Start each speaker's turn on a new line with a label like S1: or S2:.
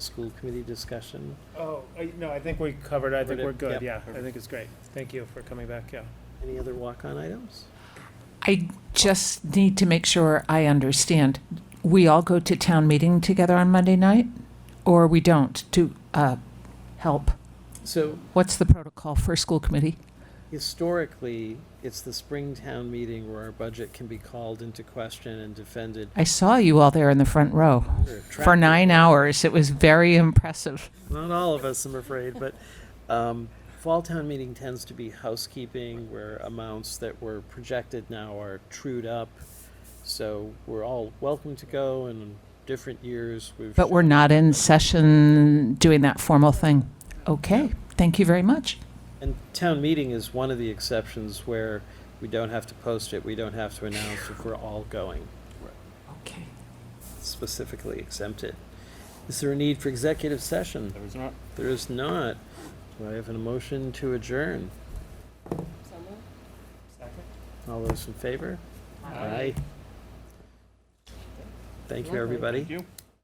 S1: school committee discussion.
S2: Oh, I- no, I think we covered, I think
S1: Covered it,
S2: we're good,
S1: yep.
S2: yeah, I think it's great. Thank you for coming back, yeah.
S1: Any other walk-on items?
S3: I just need to make sure I understand. We all go to town meeting together on Monday night, or we don't to uh, help?
S1: So
S3: What's the protocol for school committee?
S1: historically, it's the spring town meeting where our budget can be called into question and defended.
S3: I saw you all there in the front row for nine hours. It was very impressive.
S1: Not all of us, I'm afraid, but um, fall town meeting tends to be housekeeping where amounts that were projected now are trued up. So we're all welcome to go and in different years. We've
S3: But we're not in session doing that formal thing. Okay, thank you very much.
S1: And town meeting is one of the exceptions where we don't have to post it, we don't have to announce if we're all going,
S3: Okay.
S1: specifically exempted. Is there a need for executive session?
S4: There is not.
S1: There is not. Do I have an motion to adjourn? All those in favor? Aye. Thank you, everybody.
S4: Thank you.